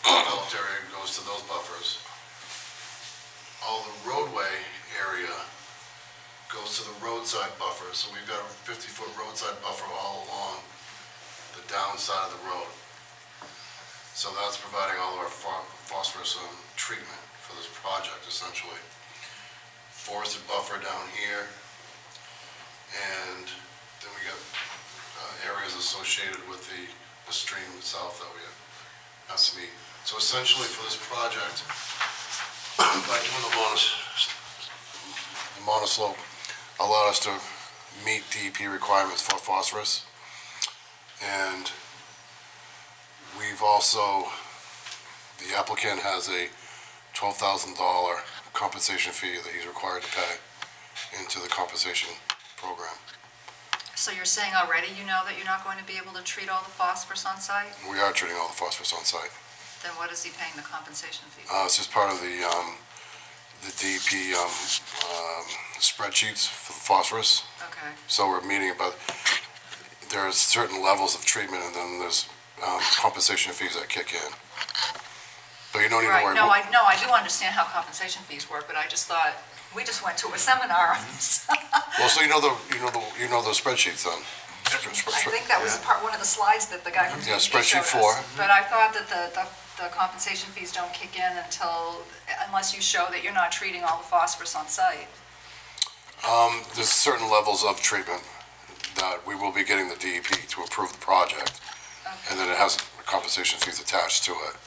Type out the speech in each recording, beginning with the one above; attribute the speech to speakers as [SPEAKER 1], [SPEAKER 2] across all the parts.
[SPEAKER 1] developed area goes to those buffers. All the roadway area goes to the roadside buffer, so we've got a fifty-foot roadside buffer all along the downside of the road. So that's providing all of our pho- phosphorus um, treatment for this project essentially. Forested buffer down here, and then we got uh, areas associated with the, the stream itself that we have, has to meet. So essentially for this project, by doing the monos, the monoslope, allowed us to meet DEP requirements for phosphorus. And we've also, the applicant has a twelve thousand dollar compensation fee that he's required to pay into the compensation program.
[SPEAKER 2] So you're saying already you know that you're not going to be able to treat all the phosphorus on site?
[SPEAKER 1] We are treating all the phosphorus on site.
[SPEAKER 2] Then what is he paying the compensation fee?
[SPEAKER 1] Uh, it's just part of the, um, the DEP, um, um, spreadsheets for the phosphorus.
[SPEAKER 2] Okay,
[SPEAKER 1] So we're meeting about, there's certain levels of treatment and then there's, um, compensation fees that kick in. But you don't need to
[SPEAKER 2] right,
[SPEAKER 1] worry.
[SPEAKER 2] no, I, no, I do understand how compensation fees work, but I just thought, we just went to a seminar on this.
[SPEAKER 1] Well, so you know the, you know the, you know the spreadsheets then?
[SPEAKER 2] I think that was part, one of the slides that the guy from
[SPEAKER 1] Yeah,
[SPEAKER 2] DEP
[SPEAKER 1] spreadsheet
[SPEAKER 2] showed us.
[SPEAKER 1] four.
[SPEAKER 2] But I thought that the, the the compensation fees don't kick in until, unless you show that you're not treating all the phosphorus on site.
[SPEAKER 1] Um, there's certain levels of treatment that we will be getting the DEP to approve the project. And then it has compensation fees attached to it.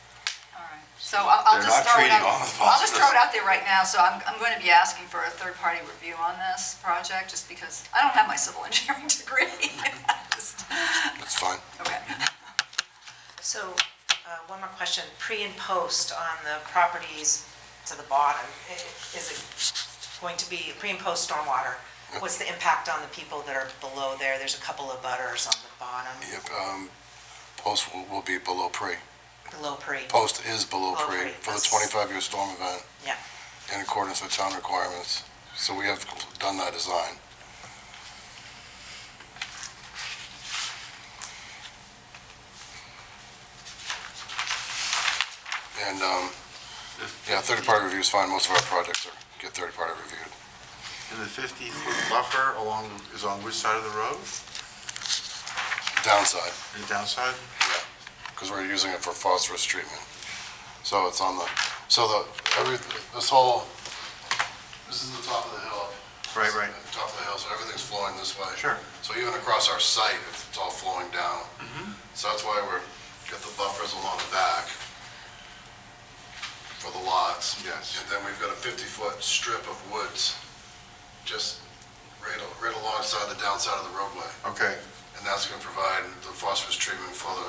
[SPEAKER 2] All right. So I'll, I'll
[SPEAKER 3] They're
[SPEAKER 2] just
[SPEAKER 3] not
[SPEAKER 2] throw it out,
[SPEAKER 3] treating all the
[SPEAKER 2] I'll just throw
[SPEAKER 3] phosphorus.
[SPEAKER 2] it out there right now, so I'm, I'm going to be asking for a third-party review on this project, just because I don't have my civil engineering degree. Just-
[SPEAKER 1] That's fine.
[SPEAKER 2] Okay.
[SPEAKER 4] So, uh, one more question, pre and post on the properties to the bottom, i- is it going to be pre and post stormwater? What's the impact on the people that are below there? There's a couple of butters on the bottom,
[SPEAKER 1] Yep, um, post will, will be below pre.
[SPEAKER 4] below pre.
[SPEAKER 1] Post is below
[SPEAKER 4] Below
[SPEAKER 1] pre
[SPEAKER 4] pre,
[SPEAKER 1] for the
[SPEAKER 4] that's-
[SPEAKER 1] twenty-five year storm event.
[SPEAKER 4] Yeah.
[SPEAKER 1] In accordance with town requirements. So we have done that design. And, um, yeah, third-party review is fine. Most of our projects are, get third-party reviewed.
[SPEAKER 3] And the 50-foot buffer along, is on which side of the road?
[SPEAKER 1] Downside,
[SPEAKER 3] The downside?
[SPEAKER 1] because we're using it for phosphorus treatment. So it's on the, so the, every, this whole, this is the top of the hill.
[SPEAKER 3] Right, right.
[SPEAKER 1] Top of the hill, so everything's flowing this way.
[SPEAKER 3] Sure.
[SPEAKER 1] So even across our site, it's all flowing down.
[SPEAKER 3] Mm-hmm.
[SPEAKER 1] So that's why we're, got the buffers along the back for the lots.
[SPEAKER 3] Yes.
[SPEAKER 1] And then we've got a 50-foot strip of woods just right, al- right alongside the downside of the roadway.
[SPEAKER 3] Okay,
[SPEAKER 1] And that's going to provide the phosphorus treatment for the.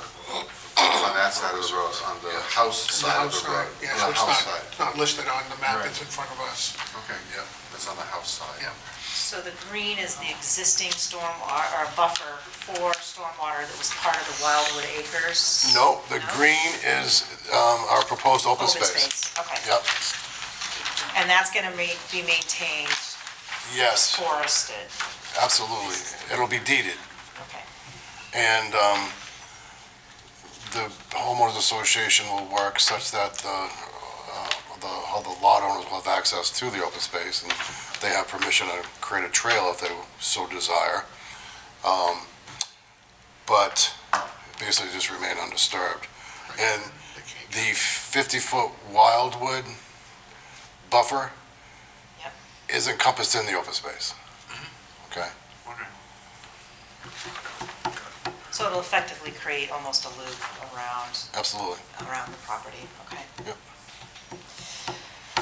[SPEAKER 3] on that side of the road, on the
[SPEAKER 1] Yeah.
[SPEAKER 3] house side of the road.
[SPEAKER 5] Yeah,
[SPEAKER 3] On the
[SPEAKER 5] so it's
[SPEAKER 3] house
[SPEAKER 5] not,
[SPEAKER 3] side.
[SPEAKER 5] it's not listed on the map
[SPEAKER 3] Right.
[SPEAKER 5] that's in front of us.
[SPEAKER 3] Okay, yeah, that's on the house side.
[SPEAKER 5] Yeah.
[SPEAKER 4] So the green is the existing storm, uh, or or buffer for stormwater that was part of the Wildwood Acres?
[SPEAKER 1] No, the green is um, our proposed open
[SPEAKER 4] Open
[SPEAKER 1] space.
[SPEAKER 4] space, okay.
[SPEAKER 1] Yep,
[SPEAKER 4] And that's going to be maintained
[SPEAKER 1] yes,
[SPEAKER 4] forested,
[SPEAKER 1] absolutely. It'll be deeded.
[SPEAKER 4] okay.
[SPEAKER 1] And um, the homeowners association will work such that the, uh, the, how the lot owners will have access to the open space, and they have permission to create a trail if they so desire. Um, But basically just remain undisturbed. And the 50-foot wildwood buffer
[SPEAKER 4] Yep.
[SPEAKER 1] is encompassed in the open space. Okay?
[SPEAKER 3] Wondering.
[SPEAKER 4] So it'll effectively create almost a loop around,
[SPEAKER 1] Absolutely.
[SPEAKER 4] around the property, okay?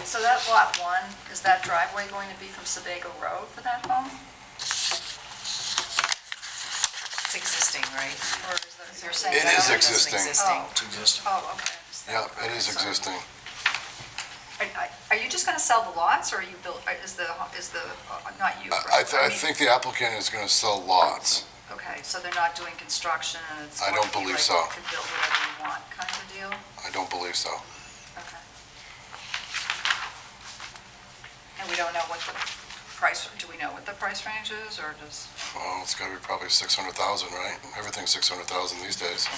[SPEAKER 2] So that lot one, is that driveway going to be from Sebago Road for that home?
[SPEAKER 4] It's existing, right?
[SPEAKER 2] Or is that, you're saying?
[SPEAKER 1] It
[SPEAKER 2] that-
[SPEAKER 1] is
[SPEAKER 4] Doesn't
[SPEAKER 1] existing.
[SPEAKER 2] Oh,
[SPEAKER 3] existing.
[SPEAKER 2] oh, okay. I understand.
[SPEAKER 1] Yeah, it is
[SPEAKER 2] Okay, so-
[SPEAKER 1] existing.
[SPEAKER 2] Are- Are, are you just going to sell the lots, or are you built, is the, is the, uh, not you?
[SPEAKER 1] I, I
[SPEAKER 2] right?
[SPEAKER 1] th- I
[SPEAKER 2] mean-
[SPEAKER 1] think the applicant is gonna sell lots.
[SPEAKER 2] Okay, so they're not doing construction, and it's.
[SPEAKER 1] I
[SPEAKER 2] going
[SPEAKER 1] don't
[SPEAKER 2] to be
[SPEAKER 1] believe
[SPEAKER 2] like
[SPEAKER 1] so.
[SPEAKER 2] You can build whatever you want, kind of a deal?
[SPEAKER 1] I don't believe so.
[SPEAKER 2] Okay. And we don't know what the price, do we know what the price range is, or does?
[SPEAKER 1] Well, it's gotta be probably six hundred thousand, right? Everything's six hundred thousand these days.